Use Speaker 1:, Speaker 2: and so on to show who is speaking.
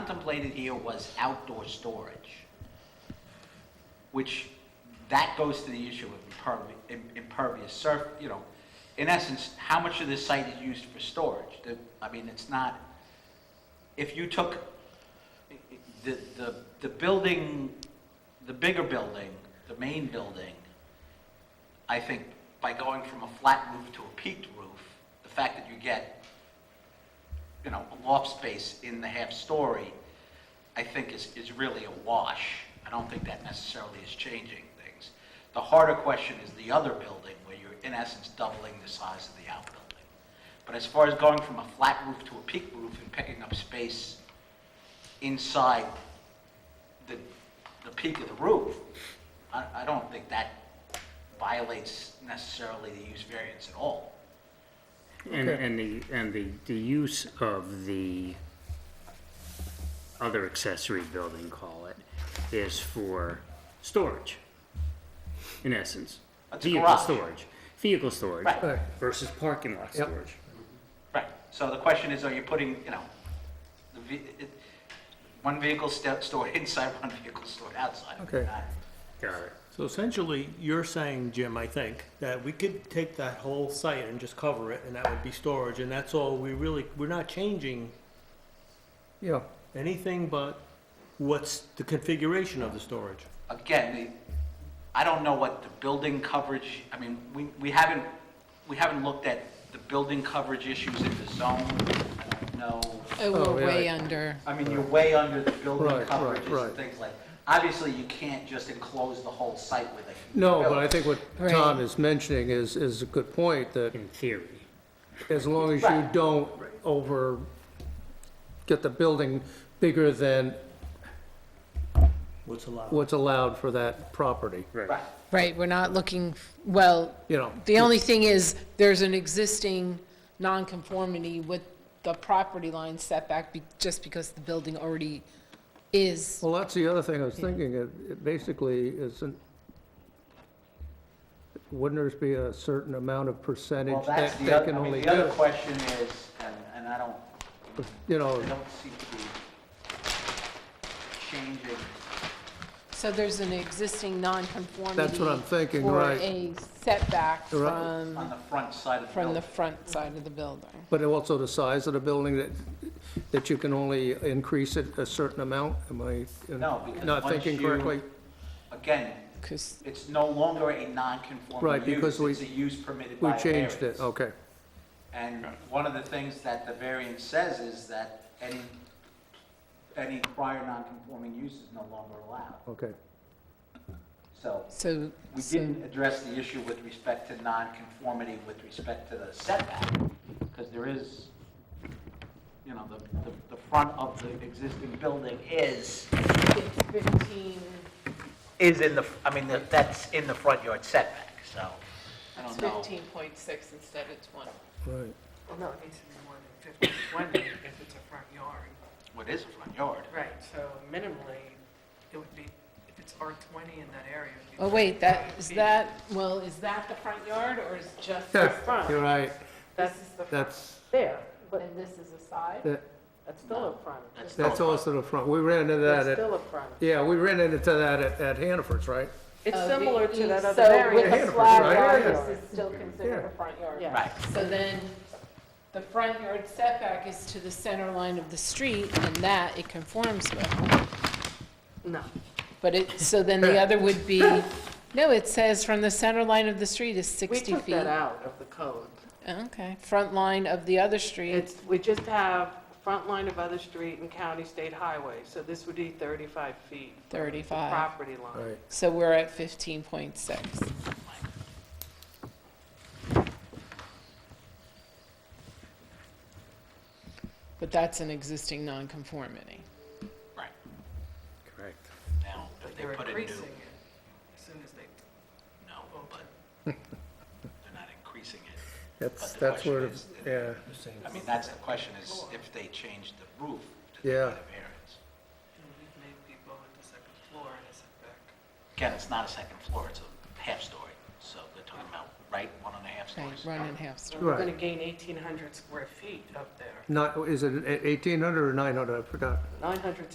Speaker 1: contemplated here was outdoor storage, which, that goes to the issue of impervi- im- impervious surf, you know, in essence, how much of this site is used for storage? The- I mean, it's not, if you took the, the, the building, the bigger building, the main building, I think by going from a flat roof to a peaked roof, the fact that you get, you know, a loft space in the half-story, I think is, is really a wash. I don't think that necessarily is changing things. The harder question is the other building, where you're in essence doubling the size of the outbuilding. But as far as going from a flat roof to a peaked roof and picking up space inside the, the peak of the roof, I, I don't think that violates necessarily the use variance at all.
Speaker 2: And, and the, and the, the use of the other accessory building, call it, is for storage, in essence.
Speaker 1: That's a
Speaker 2: Vehicle
Speaker 1: garage.
Speaker 2: storage, vehicle storage
Speaker 1: Right.
Speaker 3: Right.
Speaker 2: versus parking lot
Speaker 3: Yep.
Speaker 2: storage.
Speaker 1: Right, so the question is, are you putting, you know, the, ve- it, one vehicle sta- stored inside, one vehicle stored outside? Uh,
Speaker 3: Okay.
Speaker 1: Not-
Speaker 2: Got it.
Speaker 4: So essentially, you're saying, Jim, I think, that we could take that whole site and just cover it, and that would be storage, and that's all, we really, we're not changing
Speaker 3: Yeah,
Speaker 4: anything but what's the configuration of the storage.
Speaker 1: Again, the, I don't know what the building coverage, I mean, we, we haven't, we haven't looked at the building coverage issues in the zone. I don't know.
Speaker 5: Oh,
Speaker 3: Oh,
Speaker 5: we're
Speaker 3: yeah.
Speaker 5: way under.
Speaker 1: I mean, you're way under the building
Speaker 3: Right, right,
Speaker 1: coverages and
Speaker 3: right.
Speaker 1: things like, obviously, you can't just enclose the whole site with a.
Speaker 3: no, but I think what
Speaker 5: Right.
Speaker 3: Tom is mentioning is, is a good point, that
Speaker 2: In theory.
Speaker 3: as long as you
Speaker 1: Right.
Speaker 3: don't over, get the building bigger than
Speaker 4: What's allowed?
Speaker 3: what's allowed for that property,
Speaker 1: Right,
Speaker 5: Right, we're not looking, well,
Speaker 3: you know?
Speaker 5: the only thing is, there's an existing nonconformity with the property line setback, be- just because the building already is,
Speaker 3: Well, that's the other thing I was thinking, it it basically isn't, wouldn't there be a certain amount of
Speaker 1: well,
Speaker 3: percentage
Speaker 1: that's
Speaker 3: that
Speaker 1: the
Speaker 3: they
Speaker 1: other,
Speaker 3: can
Speaker 1: I mean,
Speaker 3: only
Speaker 1: the other
Speaker 3: do?
Speaker 1: question is, and, and I don't,
Speaker 3: You
Speaker 1: I
Speaker 3: know,
Speaker 1: don't seem to be changing.
Speaker 5: so there's an existing nonconformity.
Speaker 3: That's what I'm thinking, right.
Speaker 5: For a setback
Speaker 3: Right.
Speaker 1: on
Speaker 5: from,
Speaker 1: the front side of the
Speaker 5: Um, from the
Speaker 1: building.
Speaker 5: front side of the building.
Speaker 3: but also the size of the building, that, that you can only increase it a certain amount, am I uh,
Speaker 1: No, because
Speaker 3: not
Speaker 1: once
Speaker 3: thinking
Speaker 1: you-
Speaker 3: correctly?
Speaker 1: Again,
Speaker 5: 'Cause-
Speaker 1: it's no longer a non-conforming
Speaker 3: Right,
Speaker 1: use,
Speaker 3: because we-
Speaker 1: it's a use permitted
Speaker 3: We
Speaker 1: by a
Speaker 3: changed
Speaker 1: variance.
Speaker 3: it, okay.
Speaker 1: And one of the things that the variance says is that any, any prior non-conforming use is no longer allowed.
Speaker 3: Okay,
Speaker 1: So
Speaker 5: so,
Speaker 1: we
Speaker 5: so-
Speaker 1: didn't address the issue with respect to non-conformity with respect to the setback, because there is, you know, the, the, the front of the existing building is,
Speaker 5: it's 15,
Speaker 1: is in the, I mean, that- that's in the front yard setback, so I
Speaker 5: it's
Speaker 1: don't know.
Speaker 5: 15.6 instead of 20.
Speaker 3: right.
Speaker 6: Well, no, it needs to be more than fifty-one if it's a front yard.
Speaker 1: What is a front yard?
Speaker 6: Right. So minimally, it would be, if it's R twenty in that area. it would be
Speaker 5: Oh, wait, that,
Speaker 6: 35
Speaker 5: is
Speaker 6: feet.
Speaker 5: that, well, is that the front yard or is just the
Speaker 3: Yeah,
Speaker 5: front?
Speaker 3: You're right,
Speaker 5: This is the front.
Speaker 3: that's,
Speaker 5: There, and this is the side?
Speaker 3: that-
Speaker 5: That's still a front.
Speaker 1: That's
Speaker 3: that's also the front, we ran into that,
Speaker 6: It's
Speaker 3: at
Speaker 6: still a front.
Speaker 3: yeah, we ran into that at, at Hannaford's, right?
Speaker 6: It's
Speaker 5: Oh,
Speaker 6: similar
Speaker 5: the-
Speaker 6: to that
Speaker 5: so
Speaker 6: other area.
Speaker 5: With a
Speaker 3: Hannaford,
Speaker 5: slab
Speaker 3: right?
Speaker 5: yard,
Speaker 3: Yeah.
Speaker 5: this is still considered
Speaker 3: Yeah.
Speaker 5: a front yard.
Speaker 6: Yeah.
Speaker 1: Right.
Speaker 5: So then, the front yard setback is to the center line of the street and that it conforms with.
Speaker 6: No.
Speaker 5: But it, so then the other would be, no, it says from the center line of the street is
Speaker 6: We
Speaker 5: 60
Speaker 6: took
Speaker 5: feet.
Speaker 6: that out of the code.
Speaker 5: Okay, front line of the other street,
Speaker 6: It's, we just have front line of other street and county state highway, so this would be thirty-five feet. from the
Speaker 5: 35.
Speaker 6: Property line.
Speaker 3: Right.
Speaker 5: so we're at 15.6. But that's an existing nonconformity.
Speaker 1: Right,
Speaker 2: Correct.
Speaker 1: now, if they
Speaker 6: They're
Speaker 1: put a new,
Speaker 6: increasing it as soon as they
Speaker 1: no, but they're not increasing it.
Speaker 3: That's,
Speaker 1: But the
Speaker 3: that's
Speaker 1: question
Speaker 3: where,
Speaker 1: is-
Speaker 3: yeah,
Speaker 1: I mean, that's the question, is if they change the roof, do they
Speaker 3: Yeah.
Speaker 1: get a variance?
Speaker 6: And we've made people at the second floor in a setback.
Speaker 1: Again, it's not a second floor, it's a half story, so they're talking about, right, one and a half
Speaker 5: Right,
Speaker 1: stories?
Speaker 5: run and half story.
Speaker 6: We're
Speaker 3: Right.
Speaker 6: gonna gain eighteen hundred square feet up there,
Speaker 3: not, is it eighteen hundred or nine hundred, I forgot.
Speaker 6: nine hundred